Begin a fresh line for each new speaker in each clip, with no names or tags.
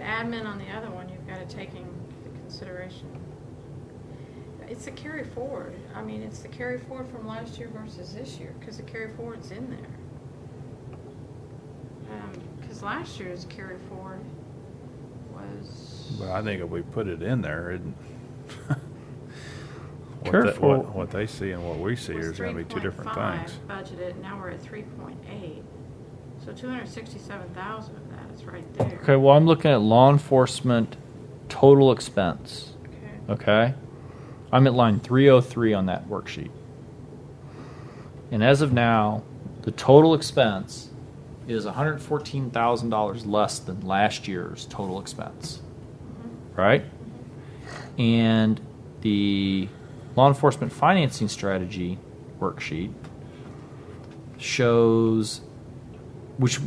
admin on the other one, you've got to take into consideration. It's the carry forward. I mean, it's the carry forward from last year versus this year, because the carry forward's in there. Because last year's carry forward was.
But I think if we put it in there, it. what
Carry
that-
forward.
What, what they see and what we see
was
is gonna be two different
3.5
things.
Budgeted, now we're at three point eight. So two hundred sixty-seven thousand of that is right there.
Okay, well, I'm looking at law enforcement total expense.
Okay.
Okay? I'm at line 303 on that worksheet. And as of now, the total expense is $114,000 less than last year's total expense. Right? And the law enforcement financing strategy worksheet shows which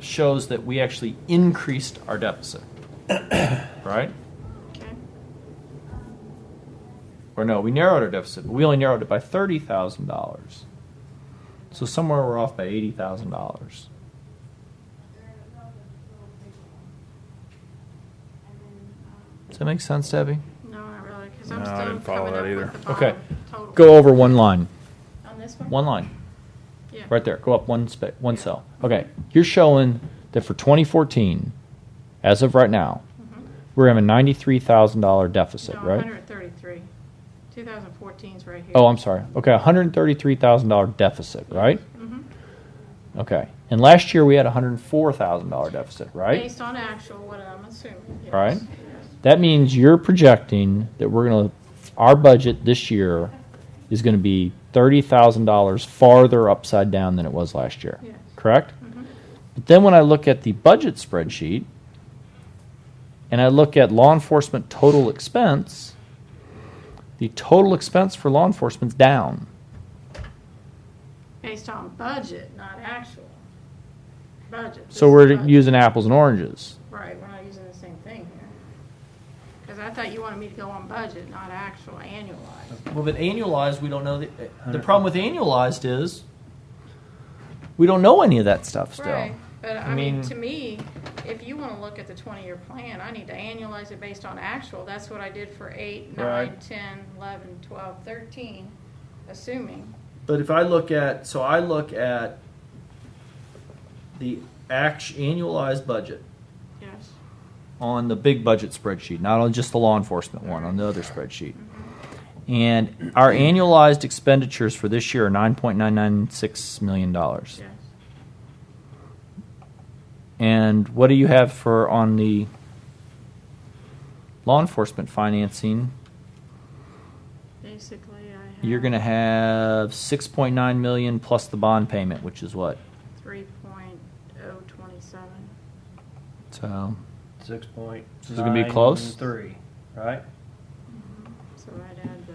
shows that we actually increased our deficit. right?
Okay.
or no, we narrowed our deficit, but we only narrowed it by thirty thousand dollars. So somewhere we're off by eighty thousand dollars. Does that make sense, Debbie?
No, not really, because I'm
No, I
still
didn't follow
coming
that
up
either.
with the
Okay.
bottom total.
Go over one line,
On this one?
one line,
Yeah.
right there. Go up one spa one cell. Okay, you're showing that for 2014, as of right now,
Mhm.
we're having a ninety-three thousand dollar deficit,
No,
right?
133. 2014's right here.
Oh, I'm sorry. Okay, one hundred thirty-three thousand dollar deficit, right?
Mhm.
Okay. And last year we had a hundred four thousand dollar deficit, right?
Based on actual, what I'm assuming. yes.
Right.
Yes.
That means you're projecting that we're gonna our budget this year is gonna be thirty thousand dollars farther upside down than it was last year.
Yes.
Correct?
Mhm.
But then when I look at the budget spreadsheet and I look at law enforcement total expense, the total expense for law enforcement's down.
Based on budget, not actual. Budget. this
So
is
we're
budget.
using apples and oranges.
Right, we're not using the same thing here. Because I thought you wanted me to go on budget, not actual annualized.
Well, but annualized, we don't know. The, the problem with annualized is we don't know any of that stuff still.
Right, but I
I
mean,
mean-
to me, if you want to look at the twenty-year plan, I need to annualize it based on actual. That's what I did for eight, nine,
Right.
ten, eleven, twelve, thirteen, assuming.
But if I look at, so I look at the act, annualized budget
Yes.
on the big budget spreadsheet, not on just the law enforcement one, on the other spreadsheet. And our annualized expenditures for this year are $9.996 million.
Yes.
And what do you have for on the law enforcement financing?
Basically, I have.
You're going to have 6.9 million plus the bond payment, which is what?
Three point oh twenty-seven.
So
Six point.
This is gonna be close?
Three, right?
So I'd add the,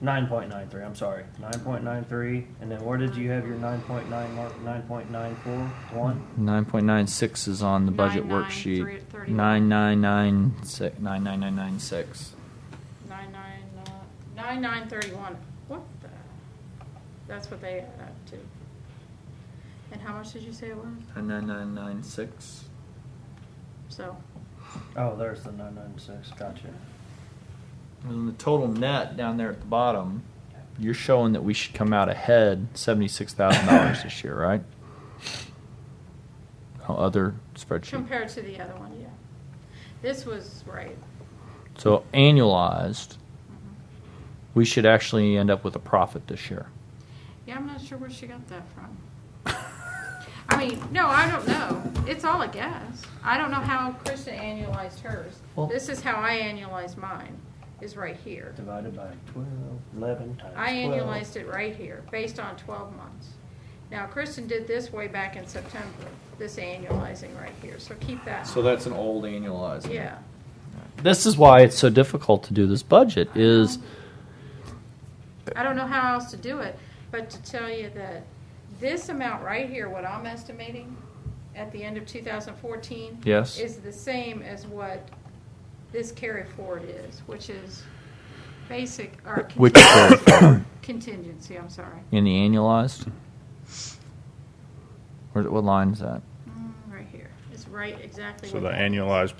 Nine point nine three. I'm sorry, nine point nine three. And then where did you have your nine point nine mark? Nine point nine four one.
9.96 is on the budget
9.9, three-
worksheet.
thirty-one.
9996 99996.
nine nine, nine nine thirty-one. What the? That's what they add up to. And how much did you say it was?
99996.
So,
Oh, there's the nine nine six. Gotcha.
And then the total net down there at the bottom, you're showing that we should come out ahead $76,000 this year, right? Oh, other spreadsheet.
compared to the other one, yeah. This was right. Mm-hmm.
So annualized, we should actually end up with a profit this year.
Yeah, I'm not sure where she got that from. I mean, no, I don't know. It's all a guess. I don't know how Krista annualized hers.
Well-
This is how I annualized mine, is right here.
Divided by 12, 11 times.
I
12.
annualized it right here, based on twelve months. Now, Kristen did this way back in September, this annualizing right here, so keep that.
that's an old annualized.
Yeah,
This is why it's so difficult to do this budget is
I don't know how else to do it, but to tell you that this amount right here, what I'm estimating at the end of two thousand fourteen.
Yes.
Is the same as what this carry forward is, which is basic, or
Which carry
contingency, contingency, I'm sorry.
in the annualized. Where, what line is that?
Mm, Right here, it's right exactly.
So
what
the
that is.
annualized